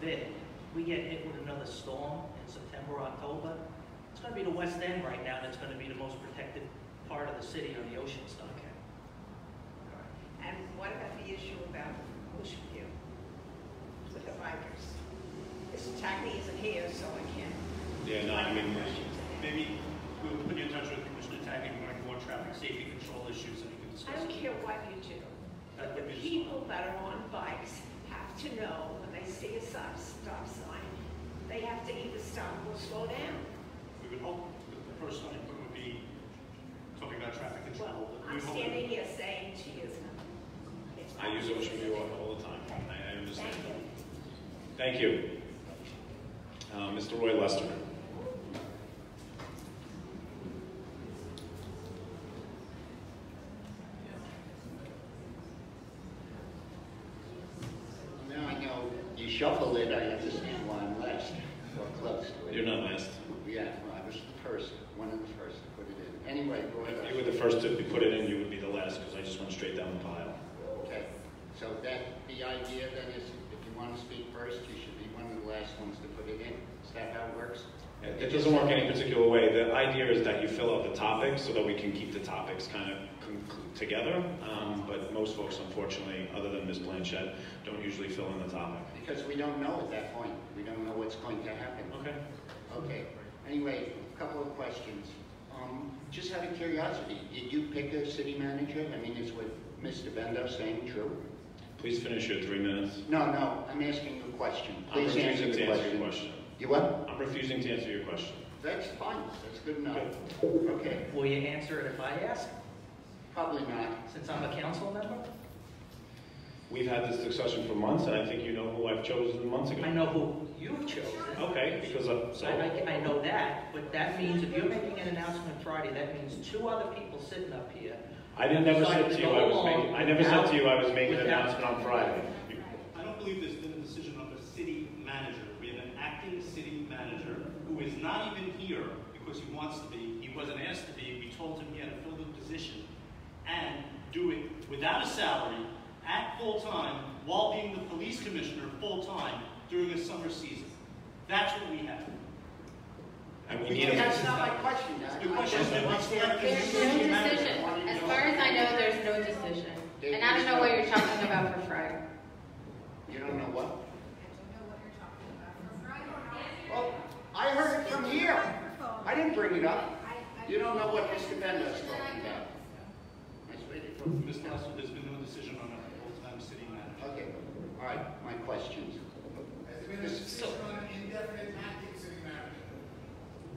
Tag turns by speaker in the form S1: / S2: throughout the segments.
S1: bid, we get hit with another storm in September, October, it's gonna be the west end right now that's gonna be the most protected part of the city on the ocean side.
S2: Okay. And what about the issue about Ocean View with the bikers? Because Tagney isn't here, so I can't.
S3: Yeah, no, I mean,
S4: Maybe we'll put you in touch with Commissioner Tagney, when I go on traffic safety control issues, and you can
S2: I don't
S4: discuss.
S2: care what you do.
S4: That
S2: The
S4: would be just-
S2: people that are on bikes have to know when they see a stop, stop sign, they have to either stop or slow down.
S4: We would hope that the first one would be talking about traffic
S2: Well,
S4: control. but we
S2: I'm
S4: hope-
S2: standing here saying to you. it's
S3: I use
S2: not-
S3: Ocean View all the time, I I understand.
S2: Thank you.
S3: Thank you. Uh, Mr. Roy Lester.
S5: Now I know you shuffle it, I understand why I'm last, or close to it.
S3: You're not last.
S5: Yeah, well, I was the first, one of the first to put it in. Anyway, go
S3: If you were
S5: ahead.
S3: the first to put it in, you would be the last, because I just went straight down the pile.
S5: Okay, so that, the idea then is, if you want to speak first, you should be one of the last ones to put it in. Is that how it works?
S3: It it doesn't work any particular way. The idea is that you fill out the topics so that we can keep the topics kind of conclu- together. Um, But most folks, unfortunately, other than Ms. Blanchett, don't usually fill in the topic.
S5: Because we don't know at that point, we don't know what's going to happen.
S3: Okay.
S5: Okay, anyway, a couple of questions. Um, Just out of curiosity, did you pick a city manager? I mean, is what Mr. Bendo saying true?
S3: Please finish your three minutes.
S5: No, no, I'm asking you a question.
S3: I'm
S5: Please answer
S3: refusing
S5: the
S3: to answer your
S5: question.
S3: question.
S5: You what?
S3: I'm refusing to answer your question.
S5: That's fine, that's good enough. Okay,
S1: Will you answer it if I ask,
S5: probably not.
S1: since I'm a council member?
S3: We've had this discussion for months, and I think you know who I've chosen months ago.
S1: I know who you've
S4: Oh,
S1: chosen.
S3: Okay, because uh, I'm,
S1: So
S3: so,
S1: I, I, I know that, but that means if you're making an announcement Friday, that means two other people sitting up here.
S3: I didn't, never said to you I was making, I never said to you I was making an
S1: Without-
S3: announcement on Friday.
S4: I don't believe there's been a decision of a city manager. We have an acting city manager who is not even here because he wants to be. He wasn't asked to be. We told him he had to fill the position and do it without a salary, at full time, while being the police commissioner full time during the summer season. That's what we have.
S3: And we
S4: We
S3: need,
S4: can't
S3: a-
S5: That's not my question. I-
S4: Your question is that we select the
S5: There's
S6: There's
S4: city
S6: no
S4: manager.
S6: decision. As far as I know, there's no decision. And I don't know what you're talking about for Friday.
S5: You don't know what? Well, I heard it from here. I didn't bring it up. You don't know what Mr. Bendo's talking about. I swear to God.
S4: Mr. Lester, there's been no decision on a full-time city manager.
S5: Okay, all right, my questions.
S7: Has been a decision on an indefinite acting city manager.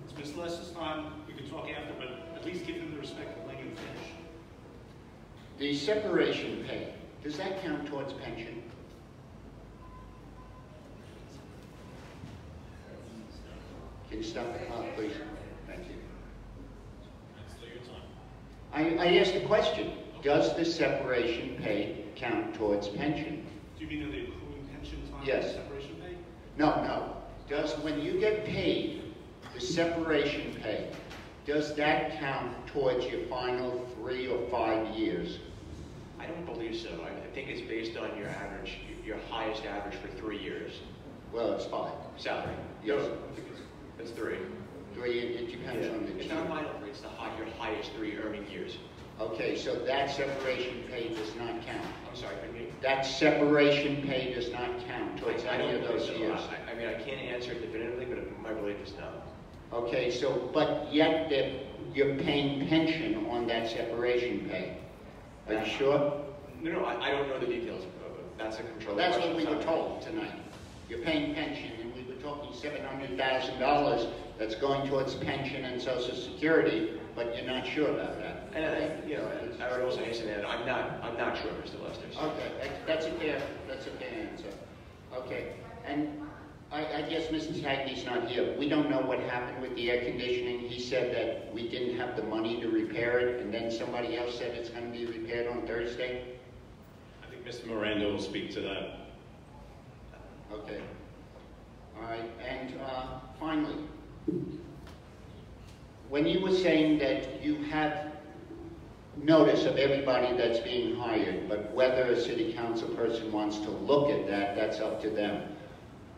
S4: It's Mr. Lester's time, we can talk after, but at least give him the respect of letting him finish.
S5: The separation pay, does that count towards pension? Can you stop the clock, please? Thank you. I, I asked a question. Does the separation pay count towards pension?
S4: Do you mean are they accruing pension time and
S5: Yes.
S4: separation pay?
S5: No, no. Does, when you get paid, the separation pay, does that count towards your final three or five years?
S8: I don't believe so. I I think it's based on your average, your highest average for three years
S5: Well, it's five.
S8: salary.
S5: Yes.
S8: It's three.
S5: Three, it it depends on the.
S8: It's not vital, but it's the high, your highest three earning years.
S5: Okay, so that separation pay does not count.
S8: I'm sorry, couldn't you?
S5: That separation pay does not count towards
S8: I
S5: any
S8: don't
S5: of
S8: believe
S5: those
S8: so.
S5: years.
S8: I, I mean, I can't answer it definitively, but my belief is no.
S5: Okay, so, but yet that you're paying pension on that separation pay. Are you sure?
S8: No, no, I, I don't know the details. of it. That's a control.
S5: Well, that's what
S8: question.
S5: we were
S8: It's not-
S5: told tonight. You're paying pension, and we were talking seven hundred thousand dollars that's going towards pension and social security, but you're not sure about that.
S8: And, I- you know, and I would also hasten to add, I'm not, I'm not sure, Mr. Lester. so-
S5: Okay, that- that's a fair, that's a fair answer. Okay, and I, I guess Mrs. Hackney's not here. We don't know what happened with the air conditioning. He said that we didn't have the money to repair it, and then somebody else said it's gonna be repaired on Thursday?
S3: I think Mr. Miranda will speak to that.
S5: Okay. All right, and uh, finally, when you were saying that you have notice of everybody that's being hired, but whether a city council person wants to look at that, that's up to them.